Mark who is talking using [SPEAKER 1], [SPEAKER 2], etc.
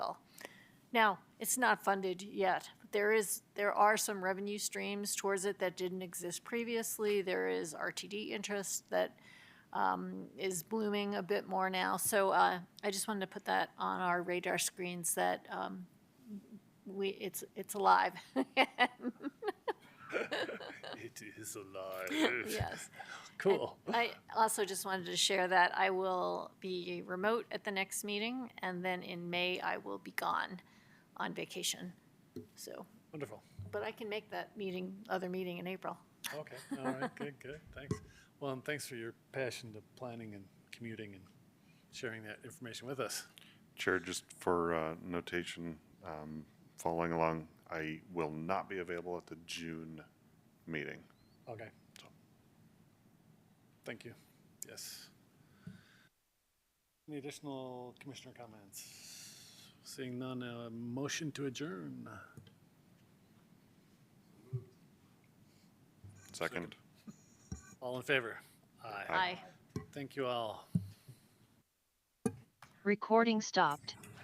[SPEAKER 1] Now, it's not funded yet. There is, there are some revenue streams towards it that didn't exist previously. There is RTD interest that um, is blooming a bit more now. So uh, I just wanted to put that on our radar screens that um, we, it's, it's alive.
[SPEAKER 2] It is alive.
[SPEAKER 1] Yes.
[SPEAKER 2] Cool.
[SPEAKER 1] I also just wanted to share that I will be remote at the next meeting, and then in May, I will be gone on vacation. So,
[SPEAKER 2] Wonderful.
[SPEAKER 1] but I can make that meeting, other meeting in April.
[SPEAKER 2] Okay. All right. Good. Good. Thanks. Well, and thanks for your passion to planning and commuting and sharing that information with us.
[SPEAKER 3] Chair, just for uh, notation, um, following along, I will not be available at the June meeting.
[SPEAKER 2] Okay. So, thank you. Yes. Any additional commissioner comments? Seeing none, uh, motion to adjourn.
[SPEAKER 3] Second.
[SPEAKER 2] All in favor? Aye.
[SPEAKER 1] Aye.
[SPEAKER 2] Thank you all.
[SPEAKER 4] Recording stopped.